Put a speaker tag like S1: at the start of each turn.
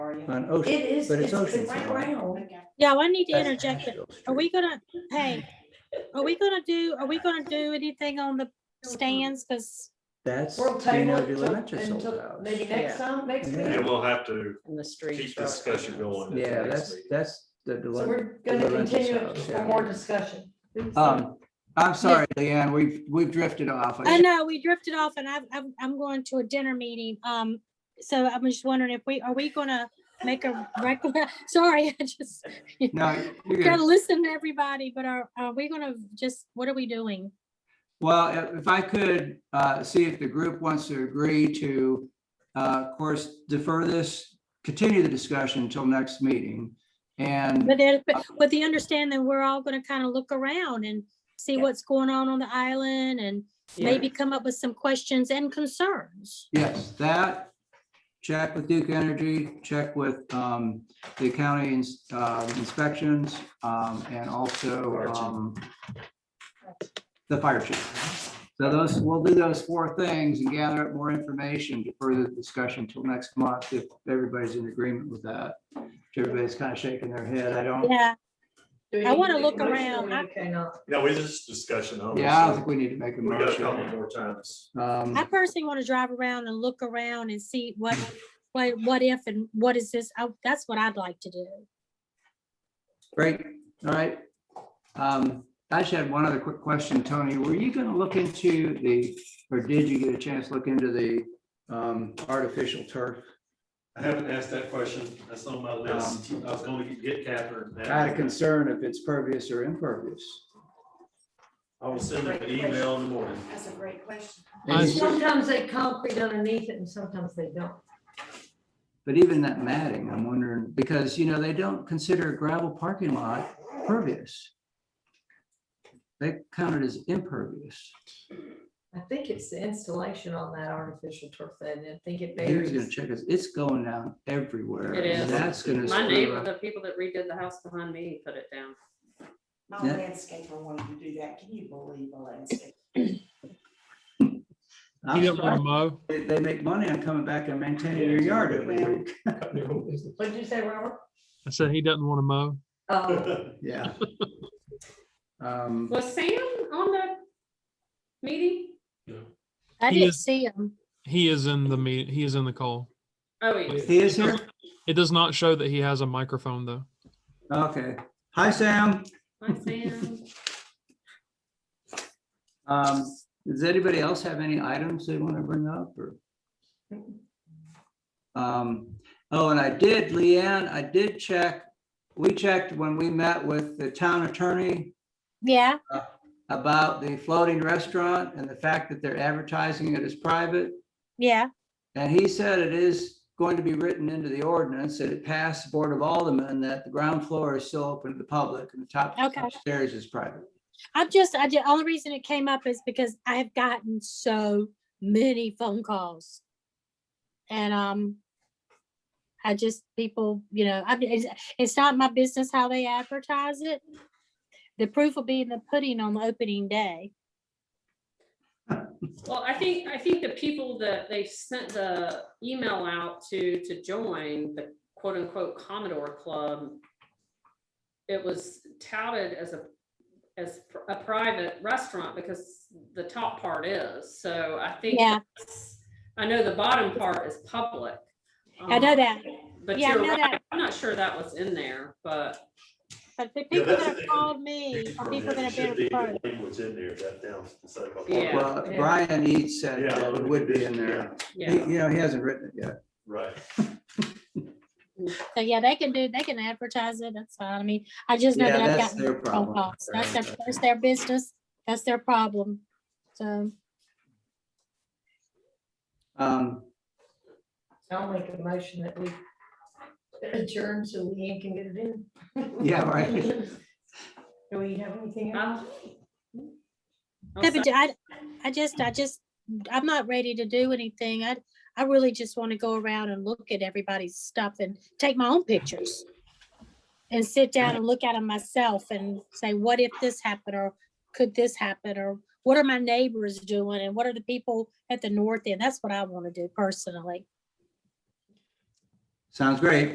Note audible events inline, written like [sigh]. S1: for you.
S2: on Ocean.
S1: It is,
S2: but it's
S1: it's
S2: Ocean
S1: it's right
S2: Boulevard.
S1: around.
S3: Yeah, I need to
S2: That's
S3: interject.
S2: Asheville
S3: Are we
S2: Street.
S3: gonna, hey, are we gonna do, are we gonna do anything on the stands? Cause
S2: That's
S1: We'll
S2: Daniel
S1: table it till-
S2: Delancey sold
S1: until
S2: out.
S1: maybe next
S4: Yeah.
S1: time, next
S2: Yeah.
S1: meeting.
S5: And we'll have to
S4: in the street.
S5: keep the discussion going. at the
S2: Yeah,
S5: next
S2: that's,
S5: meeting.
S2: that's the.
S1: So
S2: Delancey-
S1: we're gonna
S2: Delancey
S1: continue it
S2: house,
S1: for
S2: yeah.
S1: more discussion.
S2: Um, I'm sorry, Leanne, we've, we've drifted off.
S3: I know we drifted off and I'm, I'm, I'm going to a dinner meeting. Um, so I'm just wondering if we, are we gonna make a rec? [laughs] Sorry, I just
S2: No, you're good.
S3: gotta listen to everybody, but are, are we gonna just, what are we doing?
S2: Well, i- if I could uh, see if the group wants to agree to, uh, of course, defer this, continue the discussion until next meeting. And
S3: But then, but with the understanding, we're all gonna kind of look around and see
S4: Yeah.
S3: what's going on on the island and maybe come up with some questions and concerns.
S2: yes, that, check with Duke Energy, check with um, the county ins- uh, inspections, um, and also
S5: Fire chief.
S2: um, the fire chief. So those, we'll do those four things and gather up more information to further the discussion till next month, if everybody's in agreement with that. Everybody's kind of shaking their head. I don't,
S3: Yeah,
S1: Do we
S3: I
S1: need
S3: wanna
S1: make a
S3: look
S1: motion or
S3: around.
S1: we uh, okay not?
S5: Yeah, we just discussion.
S2: yeah, I don't
S5: obviously.
S2: think we need to make a
S5: We got a couple
S2: motion.
S5: more times.
S2: Um,
S3: I personally want to drive around and look around and see what, what, what if and what is this? I- That's what I'd like to do.
S2: Great, all right. Um, I just had one other quick question, Tony. Were you gonna look into the, or did you get a chance to look into the um, artificial turf?
S5: I haven't asked that question. That's on my list.
S4: Um,
S5: I was gonna get Catherine.
S2: I had a concern if it's pervious or impervious.
S5: I will send her an email in the morning.
S1: That's a great question.
S6: I-
S2: Is-
S1: Sometimes they concrete underneath it and sometimes they don't.
S2: But even that matting, I'm wondering, because, you know, they don't consider a gravel parking lot pervious. They count it as impervious.
S1: I think it's the installation on that artificial turf that, and I think it
S2: He was gonna
S1: varies.
S2: check it. It's going down everywhere.
S4: It
S2: and
S4: is.
S2: That's gonna.
S4: My
S2: screw
S4: neighbor,
S2: up.
S4: the people that redid the house behind me, put it down.
S7: My
S2: Yeah.
S7: landscaper wanted to do that. Can you believe a landscaper?
S2: I'm
S6: You don't want
S2: sorry.
S6: to mow?
S2: They, they make money on coming back and maintaining your yard every week.
S1: What'd you say,
S2: [laughs]
S1: Robert?
S6: I said he doesn't want to mow.
S1: Oh,
S2: Yeah. [laughs] Um,
S4: Was Sam on the meeting?
S3: I
S6: He
S3: didn't
S6: is-
S3: see him.
S6: He is in the meet, he is in the call.
S4: Oh, yes.
S2: he is here?
S6: It does not show that he has a microphone though.
S2: Okay. Hi, Sam.
S4: Hi, Sam.
S2: Um, does anybody else have any items they want to bring up or? Um, oh, and I did, Leanne, I did check, we checked when we met with the town attorney
S3: Yeah,
S2: about the floating restaurant and the fact that they're advertising it as private.
S3: yeah.
S2: And he said it is going to be written into the ordinance that it passed the Board of Aldermen that the ground floor is still open to the public and the top
S3: Okay.
S2: upstairs is private.
S3: I'm just, I did, only reason it came up is because I have gotten so many phone calls. And, um, I just, people, you know, I, it's, it's not my business how they advertise it. The proof will be in the pudding on the opening day.
S4: Well, I think, I think the people that they sent the email out to, to join the quote unquote Commodore Club, it was touted as a, as a private restaurant because the top part is. So I think,
S3: Yeah.
S4: that's- I know the bottom part is public.
S3: I know
S4: um,
S3: that,
S4: But
S3: Yeah, I
S4: you're
S3: know
S4: right.
S3: that.
S4: I'm not sure that was in there, but
S3: but the
S5: Yeah,
S3: people that
S5: that's the
S3: have
S5: thing.
S3: called me are people that have
S5: Should
S3: been
S5: be
S3: referred.
S5: Language in there, that down. instead of-
S4: Yeah.
S2: Well,
S1: Yeah.
S2: Brian Eads said
S5: Yeah,
S2: that it would be in there. He-
S4: yeah,
S2: You know, he hasn't written it yet.
S5: Right.
S3: So yeah, they can do, they can advertise it. That's fine. I mean, I just know
S2: Yeah,
S3: that I've
S2: that's
S3: gotten
S2: their
S3: phone
S2: problem.
S3: calls. That's their,
S2: Right.
S3: that's their business. That's their problem. So.
S2: Um,
S1: I'll make a motion that we adjourn so Leanne can get it in.
S2: Yeah, right.
S1: [laughs] Do we have anything else?
S4: I'll
S3: Yeah, but I, I just, I just, I'm not ready to do anything. I, I really just want to go around and look at everybody's stuff and take my own pictures. And sit down and look at them myself and say, what if this happened or could this happen? Or what are my neighbors doing and what are the people at the north end? That's what I want to do personally.
S2: Sounds great.